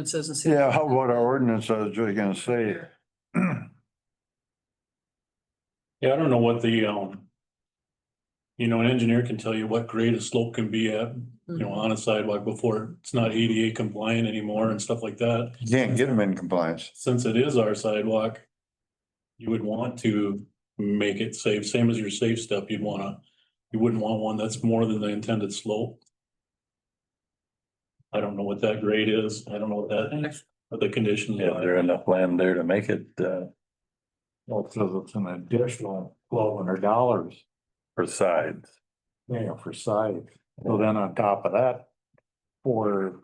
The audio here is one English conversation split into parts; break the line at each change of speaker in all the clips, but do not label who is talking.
It says in city-
Yeah, how about our ordinance, I was just gonna say.
Yeah, I don't know what the, um. You know, an engineer can tell you what grade a slope can be at, you
Mm-hmm.
know, on a sidewalk before it's not ADA compliant anymore and stuff like that.
You Can't get them in compliance.
Since it is our sidewalk. You would want to make it safe, same as your safe step, you'd wanna, you wouldn't want one that's more than the intended slope. I don't know what that grade is, I don't know what that, what the conditions
Yeah,
are.
there enough land there to make it, uh,
Well, it says it's an additional twelve hundred dollars,
for sides.
you know, for site. So then on top of that, for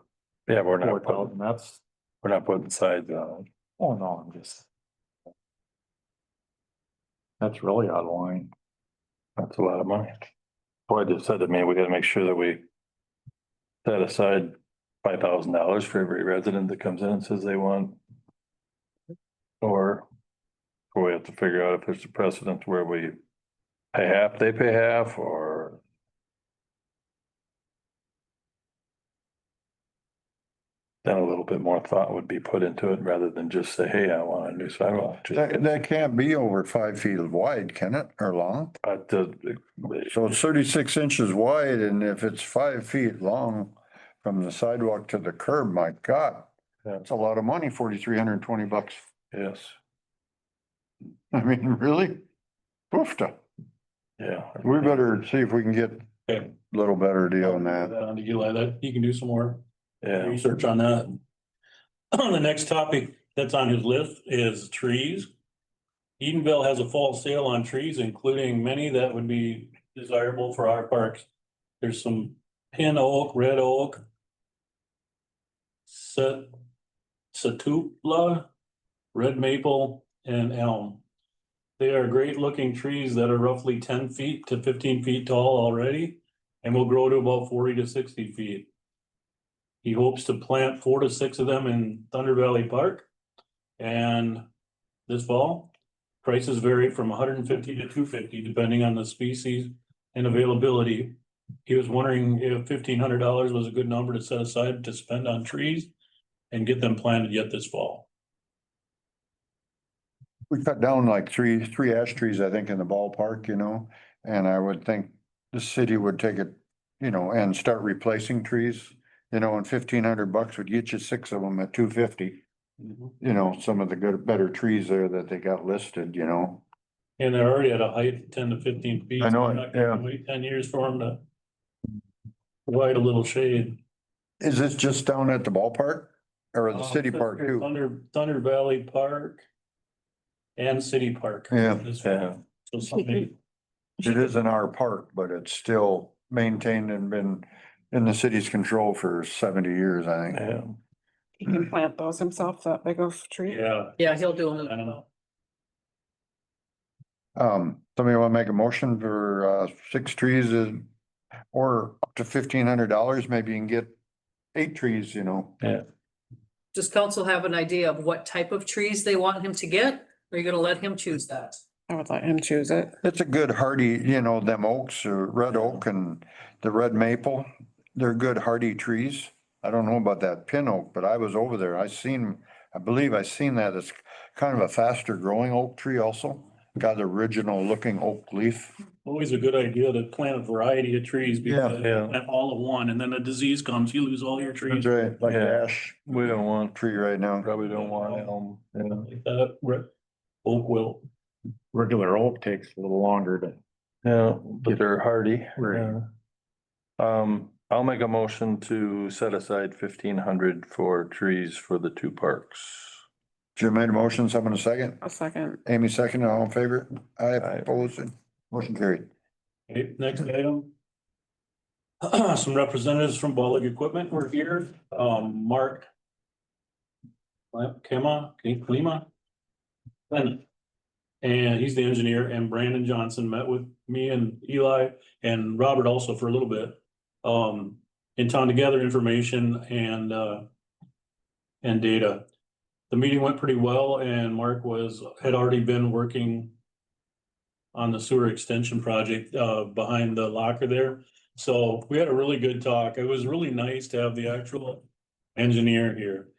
Yeah,
four
we're not, putting-
thousand, that's,
we're not putting sides on. it.
oh no, I'm just. That's really out of line.
That's a lot of money. Boy, just said to me, we gotta make sure that we set aside five thousand dollars for every resident that comes in and says they want. Or or we have to figure out if there's a precedent where we pay half, they pay half, or then a little bit more thought would be put into it rather than just say, hey, I want a new sidewalk. Just-
That, that can't be over five feet wide, can it, or long?
But the,
So it's thirty-six inches wide and if it's five feet long from the sidewalk to the curb, my God.
Yeah.
That's a lot of money, forty-three hundred and twenty bucks.
yes,
I mean, really? Oofta.
yeah.
We better see if we can get a
Okay.
little better deal on
That
that.
on to Eli, that, you can do some more
Yeah.
research on that. The next topic that's on his list is trees. Edenville has a fall sale on trees, including many that would be desirable for our parks. There's some pin oak, red oak. Set, satupla, red maple and elm. They are great looking trees that are roughly ten feet to fifteen feet tall already and will grow to about forty to sixty feet. He hopes to plant four to six of them in Thunder Valley Park. And this fall, prices vary from hundred and fifty to two fifty, depending on the species and availability. He was wondering if fifteen hundred dollars was a good number to set aside to spend on trees and get them planted yet this fall.
We cut down like three, three ash trees, I think, in the ballpark, you know, and I would think the city would take it, you know, and start replacing trees. You know, and fifteen hundred bucks would get you six of them at two fifty. you know, some of the good, better trees there that they got listed, you know.
And they're already at a height of ten to fifteen feet.
I know
so I'm
it,
not gonna
yeah.
Wait ten years for them to provide a little shade.
Is this just down at the ballpark or the
Um,
city park
Thunder-
too?
Thunder, Thunder Valley Park and City Park.
Yeah.
This-
Yeah.
So somebody,
It is in our park, but it's still maintained and been in the city's control for seventy years, I think.
Yeah,
He can plant those himself, that big of a tree.
yeah,
Yeah, he'll do
I
them.
don't know.
Um, somebody want to make a motion for, uh, six trees is- or up to fifteen hundred dollars, maybe you can get eight trees, you know?
Does council have an idea of what type of trees they want him to get? Are you gonna let him choose that?
I would let him choose it.
It's a good hardy, you know, them oaks, uh, red oak and the red maple, they're good hardy trees. I don't know about that pin oak, but I was over there, I seen, I believe I seen that, it's kind of a faster growing oak tree also. Got original looking oak leaf.
Always a good idea to plant a variety of trees because
yeah.
plant all of one and then a disease comes, you lose all your trees.
right. Like
Yeah.
ash
We don't want,
tree right now.
probably don't want elm, you know,
Like that, re- oak will,
regular oak takes a little longer to.
yeah, but they're hardy.
Right.
yeah. Um, I'll make a motion to set aside fifteen hundred for trees for the two parks.
Jim made a motion, someone a second.
A second.
Amy seconded, all in favor? I
Aye.
oppose it. Motion carried.
Okay, next item. Some representatives from Bollig Equipment were here, um, Mark. Kema, Klima. And, and he's the engineer and Brandon Johnson met with me and Eli and Robert also for a little bit. Um, in town to gather information and, uh. And data. The meeting went pretty well and Mark was, had already been working on the sewer extension project uh behind the locker there. So we had a really good talk. It was really nice to have the actual engineer here.